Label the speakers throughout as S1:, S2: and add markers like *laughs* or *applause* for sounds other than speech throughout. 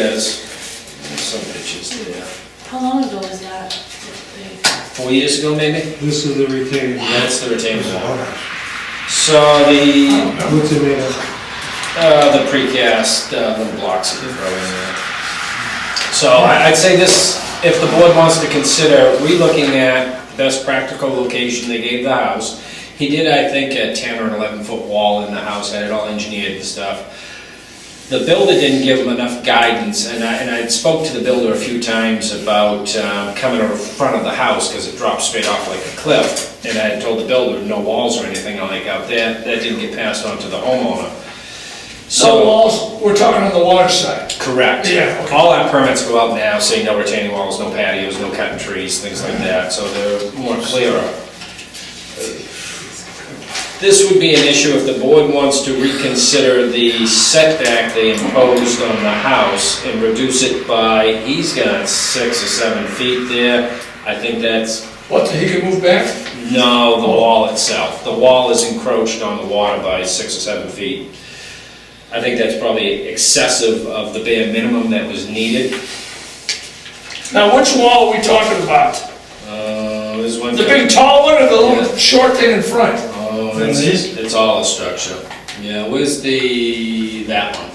S1: is, some bitches, yeah,
S2: How long ago was that? that
S1: four years ago maybe?
S3: This is the retaining wall.
S1: That's the retaining wall. So the,
S3: What's it made of?
S1: uh, the precast, uh, little blocks that you throw in there. So I- I'd say this, if the board wants to consider relooking at best practical location they gave the house. He did, I think, a ten or an eleven foot wall in the house, had it all engineered and stuff. the builder didn't give them enough guidance, and I, and I spoke to the builder a few times about um, coming over front of the house, because it drops straight off like a cliff, and I had told the builder, no walls or anything like out there, that didn't get passed on to the homeowner.
S4: No
S1: So,
S4: walls, we're talking on the water side.
S1: correct.
S4: Yeah, okay.
S1: All our permits go out now, saying no retaining walls, no patios, no cutting trees, things like that, so they're more clearer. This would be an issue if the board wants to reconsider the setback they imposed on the house and reduce it by, he's got six or seven feet there. I think that's,
S4: What, he can move back?
S1: no, the wall itself. The wall is encroached on the water by six or seven feet. I think that's probably excessive of the bare minimum that was needed.
S4: Now, which wall are we talking about?
S1: Uh, there's one.
S4: The big tall one or the
S1: Yeah.
S4: little short thing in front?
S1: Oh, it's, it's all a structure. Yeah, where's the, that one?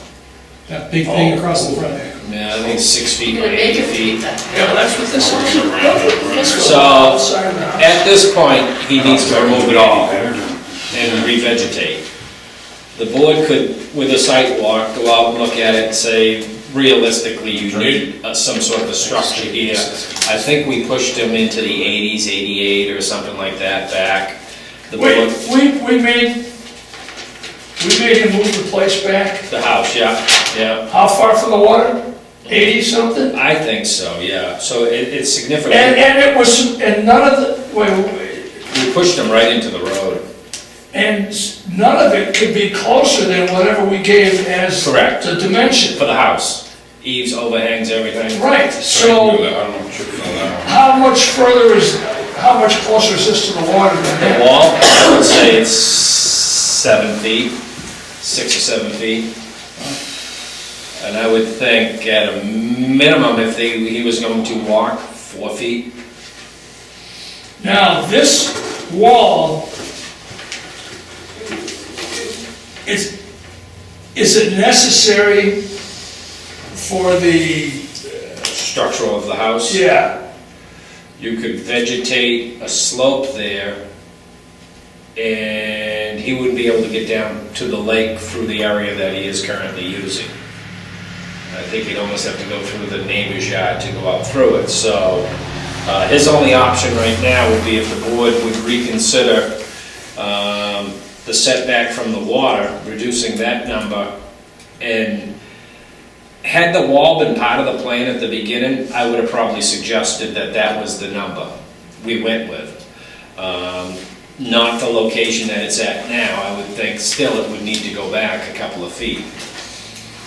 S4: That big thing across the front there.
S1: Yeah, I think six feet
S2: they-
S1: by
S2: The
S1: eight
S2: major
S1: feet.
S4: Yeah, well, that's what this is.
S1: So-
S4: Side of the house.
S1: At this point, he needs to remove it all and revegetate. The board could, with a site walk, go out and look at it and say, realistically, you need uh, some sort of a structure here. I think we pushed him into the eighties, eighty-eight or something like that back. The
S4: Wait,
S1: board,
S4: we, we made, we made him move the place back,
S1: the house, yeah, yeah.
S4: how far from the water? Eighty something?
S1: I think so, yeah. So it, it's significant.
S4: And, and it was, and none of the, wait, wait,
S1: We pushed him right into the road.
S4: and s- none of it could be closer than whatever we gave as
S1: Correct.
S4: the dimension.
S1: For the house. Eaves, overhangs, everything.
S4: Right, so
S5: So.
S4: how much further is, how much closer is this to the water than
S1: The
S4: that?
S1: wall, I would say it's seven feet, six or seven feet. And I would think at a minimum, if they, he was going to walk, four feet.
S4: Now, this wall, is, is it necessary for the,
S1: Structural of the house.
S4: yeah,
S1: You could vegetate a slope there, and he wouldn't be able to get down to the lake through the area that he is currently using. I think he'd almost have to go through the neighbor's yard to go out through it, so uh, his only option right now would be if the board would reconsider um, the setback from the water, reducing that number, and had the wall been part of the plan at the beginning, I would have probably suggested that that was the number we went with. Um, Not the location that it's at now, I would think still it would need to go back a couple of feet.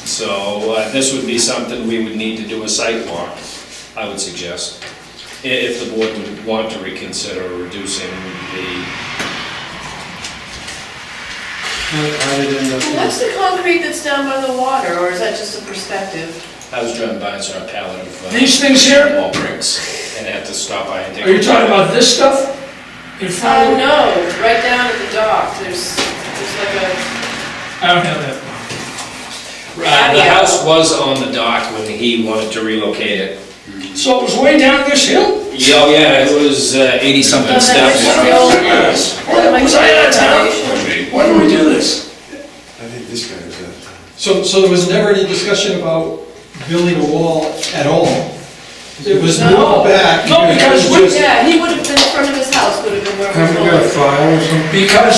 S1: So uh, this would be something we would need to do a site walk, I would suggest, i- if the board would want to reconsider reducing the,
S3: How how did it end up?
S2: Well, What's the concrete that's down by the water, or is that just a perspective?
S1: I was driving by and saw a pallet of uh,
S4: these things here?
S1: wall bricks, and I had to stop by and take.
S4: Are you talking about this stuff? In front
S2: Oh,
S4: of the-
S2: no, right down at the dock, there's, there's like a,
S4: I don't have that.
S1: Uh, The house was on the dock when he wanted to relocate it.
S4: So it was way down this hill?
S1: Yeah, oh yeah, it was eighty-something
S2: Oh, that's
S1: steps.
S2: right.
S4: Where was I out of town? Why do we do this?
S5: I think this guy was at.
S6: So, so there was never any discussion about building a wall at all? It was
S2: No.
S6: moved back.
S4: No, because we-
S2: yeah, he would have been in front of his house, would have been where
S3: Haven't
S2: we're
S3: got a
S2: going.
S3: file or something?
S4: Because,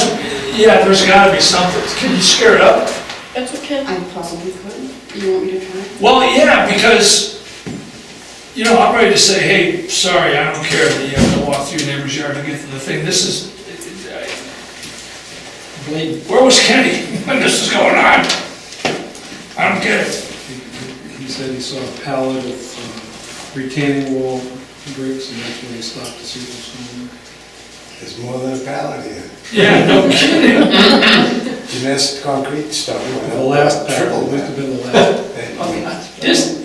S4: yeah, there's gotta be something. Can you scare it up?
S2: That's what Ken,
S7: I possibly could. You want me to try?
S4: Well, yeah, because, you know, I'm ready to say, hey, sorry, I don't care that you have to walk through your neighbor's yard to get to the thing. This is,
S6: Blade,
S4: where was Kenny *laughs* when this was going on? I don't get it.
S3: He said he saw a pallet of um, retaining wall bricks and that's when he stopped to see what's
S5: There's more than a pallet here.
S4: Yeah, no kidding.
S5: You missed concrete stuff.
S3: going on. The last pallet,
S5: Triple
S3: must have
S5: that.
S3: been the last.
S5: That-
S4: This,